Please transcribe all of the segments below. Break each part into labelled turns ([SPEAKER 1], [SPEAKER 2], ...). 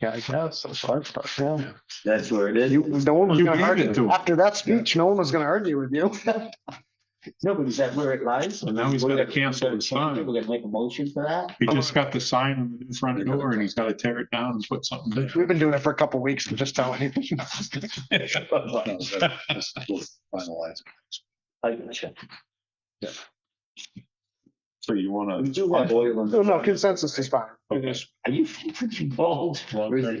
[SPEAKER 1] Yeah, I guess. That's what I thought, yeah.
[SPEAKER 2] That's where it is.
[SPEAKER 3] You, no one was
[SPEAKER 1] You
[SPEAKER 3] gonna
[SPEAKER 1] gave it to
[SPEAKER 3] argue,
[SPEAKER 1] him.
[SPEAKER 3] after that speech, no one was gonna argue with you.
[SPEAKER 2] No, but is that where it lies?
[SPEAKER 1] And now he's gotta cancel the sign.
[SPEAKER 2] We're gonna make a motion for that?
[SPEAKER 4] Oh,
[SPEAKER 1] He just got the sign on the front door and he's gotta tear it down and put something
[SPEAKER 3] We've been doing it for a couple weeks, we're just telling you.
[SPEAKER 1] there.
[SPEAKER 4] Finalized.
[SPEAKER 2] I gotcha.
[SPEAKER 1] So you wanna.
[SPEAKER 2] We do have oil on.
[SPEAKER 3] No, no, consensus is fine.
[SPEAKER 2] Are you freaking bald?
[SPEAKER 1] Long-term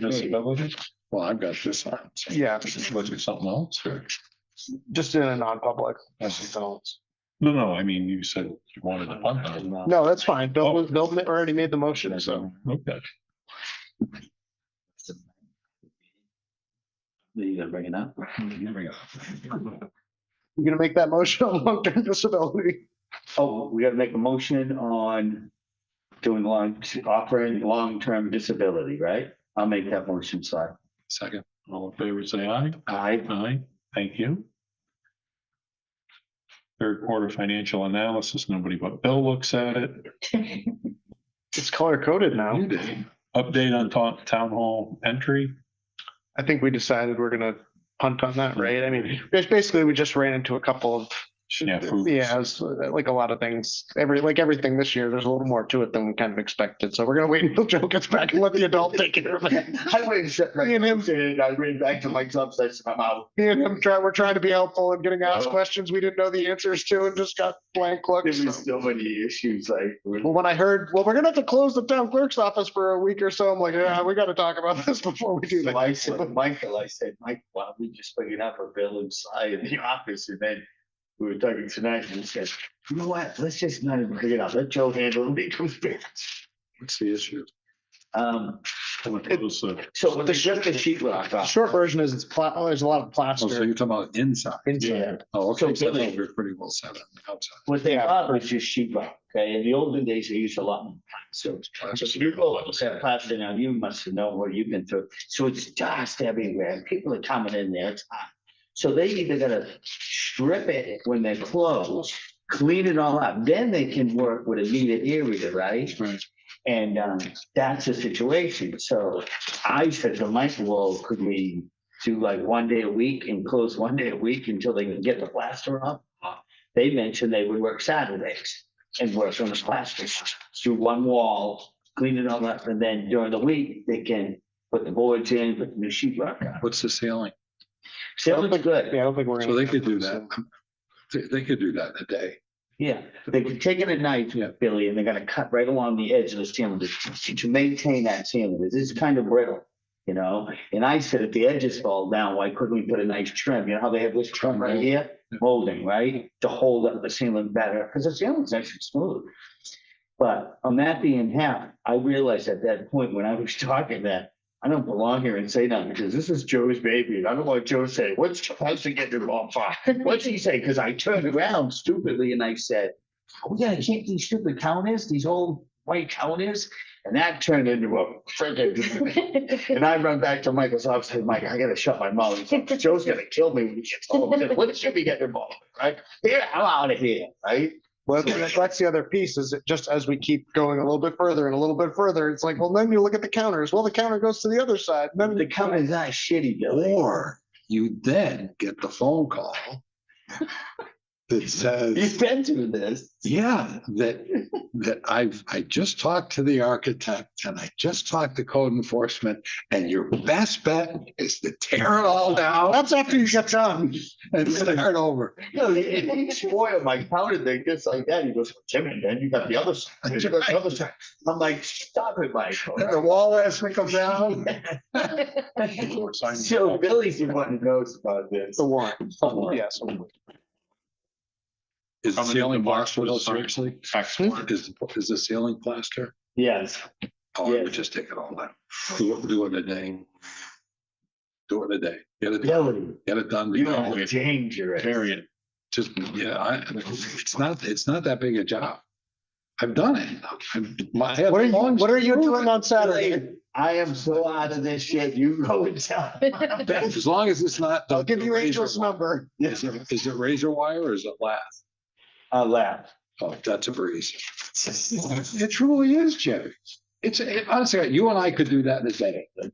[SPEAKER 1] disability?
[SPEAKER 4] Well, I've got this on. so
[SPEAKER 3] Yeah,
[SPEAKER 4] Go do something else or?
[SPEAKER 3] just in a non-public.
[SPEAKER 1] No, no, I mean, you said you wanted a pump.
[SPEAKER 3] No, that's fine.
[SPEAKER 1] Oh.
[SPEAKER 3] Bill, Bill ma- already made the motion, so.
[SPEAKER 1] Okay.
[SPEAKER 2] You gonna bring it up?
[SPEAKER 3] You're gonna make that motion on long-term disability.
[SPEAKER 2] Oh, we gotta make a motion on doing long, offering long-term disability, right? I'll make that motion, Si.
[SPEAKER 4] Second.
[SPEAKER 1] All in favor, say aye.
[SPEAKER 2] Aye.
[SPEAKER 1] Aye, thank you. Third quarter financial analysis, nobody but Bill looks at it.
[SPEAKER 3] It's color-coded now.
[SPEAKER 4] You did.
[SPEAKER 1] Update on town, town hall entry.
[SPEAKER 3] I think we decided we're gonna punt on that, right? I mean, it's basically, we just ran into a couple of,
[SPEAKER 1] Yeah, food.
[SPEAKER 3] yeah, it's uh, like a lot of things. Every, like everything this year, there's a little more to it than we kind of expected. So we're gonna wait until Joe gets back and let the adult take care of it.
[SPEAKER 2] I went and shut my.
[SPEAKER 3] Me and him-
[SPEAKER 2] I ran back to my job, so I'm out.
[SPEAKER 3] Me and him try, we're trying to be helpful and getting
[SPEAKER 4] Oh.
[SPEAKER 3] asked questions we didn't know the answers to and just got blank looks.
[SPEAKER 2] There's so many issues, like. we're-
[SPEAKER 3] Well, when I heard, well, we're gonna have to close the town clerk's office for a week or so, I'm like, yeah, we gotta talk about this before we do
[SPEAKER 2] So I
[SPEAKER 3] that.
[SPEAKER 2] said, to Michael, I said, Mike, why don't we just bring it up a bill inside in the office and then we were talking tonight and he said, you know what, let's just not even bring it up. Let Joe handle it when he comes back.
[SPEAKER 4] What's the issue?
[SPEAKER 2] Um,
[SPEAKER 1] It was, uh,
[SPEAKER 2] so with the shift to sheet rock
[SPEAKER 3] The
[SPEAKER 2] off.
[SPEAKER 3] Short version is it's pla, oh, there's a lot of
[SPEAKER 4] Oh, so
[SPEAKER 3] plaster
[SPEAKER 4] you're talking about inside.
[SPEAKER 3] inside.
[SPEAKER 4] Oh,
[SPEAKER 2] So
[SPEAKER 4] okay. So
[SPEAKER 2] Billy-
[SPEAKER 4] we're pretty well set up outside.
[SPEAKER 2] What they
[SPEAKER 3] Yeah.
[SPEAKER 2] bought was just sheet rock, okay? In the olden days, they used a lot more. So
[SPEAKER 4] Plaster.
[SPEAKER 2] you go, that plaster now, you must know where you've been through. So it's dust everywhere. and People are coming in there. It's hot. So they either gotta strip it when they close, clean it all up, then they can work with a needed area, right?
[SPEAKER 4] Right.
[SPEAKER 2] And um, that's the situation. So I said to Michael, well, could we do like one day a week and close one day a week until they can get the plaster up? They mentioned they would work Saturdays and work on the plaster, do one wall, clean it all up, and then during the week, they can put the boards in, put the new sheet rock on.
[SPEAKER 4] What's the ceiling?
[SPEAKER 2] So it was good,
[SPEAKER 3] Yeah, I don't think we're gonna.
[SPEAKER 4] So they could do that. They, they could do that in a day.
[SPEAKER 2] yeah. They can take it at night,
[SPEAKER 4] Yeah.
[SPEAKER 2] Billy, and they're gonna cut right along the edge of the ceiling to, to maintain that ceiling. This is kind of brittle, you know? And I said, if the edges fall down, why couldn't we put a nice trim? You know how they have this trim right here? Molding, right? To hold up the ceiling better, because the ceiling's actually smooth. But on that being half, I realized at that point when I was talking that I don't belong here and say nothing because this is Joe's baby. And I don't want Joe to say, what's supposed to get involved for? What's he say? Because I turned around stupidly and I said, we gotta keep these stupid counters, these old white counters. And that turned into a freaking. And I run back to Michael's office and Mike, I gotta shut my mouth. He's like, Joe's gonna kill me when he gets home. I said, What should we get involved? with, Right? Here, I'm out of here, right?
[SPEAKER 3] Well, that's that's the other piece is that just as we keep going a little bit further and a little bit further, it's like, well, then you look at the counters. Well, the counter goes to the other side. Then
[SPEAKER 2] The counters are shitty, Billy.
[SPEAKER 4] Or you then get the phone call that says,
[SPEAKER 2] You've been through this.
[SPEAKER 4] yeah, that, that I've, I just talked to the architect and I just talked to code enforcement and your best bet is to tear it all down
[SPEAKER 3] that's after you get done.
[SPEAKER 4] and start over.
[SPEAKER 2] No, he, he spoiled my powder thing just like that. He goes, Jimmy, then you got the other side. then You got the other side. I'm like, stop it, Michael.
[SPEAKER 4] And the wall has to come down.
[SPEAKER 2] So Billy's the one who knows about this.
[SPEAKER 3] The warrant.
[SPEAKER 2] Oh, yeah.
[SPEAKER 3] Yes.
[SPEAKER 4] Is the
[SPEAKER 1] Coming to
[SPEAKER 4] ceiling
[SPEAKER 1] the box
[SPEAKER 4] plaster,
[SPEAKER 1] with
[SPEAKER 4] though,
[SPEAKER 1] the sign.
[SPEAKER 4] seriously?
[SPEAKER 1] Excellent.
[SPEAKER 4] Is, is the ceiling plaster?
[SPEAKER 2] Yes,
[SPEAKER 4] Oh, I
[SPEAKER 2] Yes.
[SPEAKER 4] would just take it all down. Do it, do it in a day. Do it in a day. Get it,
[SPEAKER 2] Billy,
[SPEAKER 4] get it done.
[SPEAKER 2] you are dangerous.
[SPEAKER 1] Period.
[SPEAKER 4] Just, yeah, I, it's not, it's not that big a job. I've done it. I've- my- I have
[SPEAKER 3] What are you,
[SPEAKER 4] long-
[SPEAKER 3] what are you doing on Saturday?
[SPEAKER 2] Billy, I am so out of this shit. You go and tell. him.
[SPEAKER 4] As long as it's not.
[SPEAKER 3] I'll give you
[SPEAKER 4] razor
[SPEAKER 3] Angel's
[SPEAKER 4] wire.
[SPEAKER 3] number.
[SPEAKER 4] Is it, is it razor wire or is it lath?
[SPEAKER 2] I laugh.
[SPEAKER 4] Oh, that's a breeze. It truly is, Jerry. It's, it- honestly, you and I could do that in a day.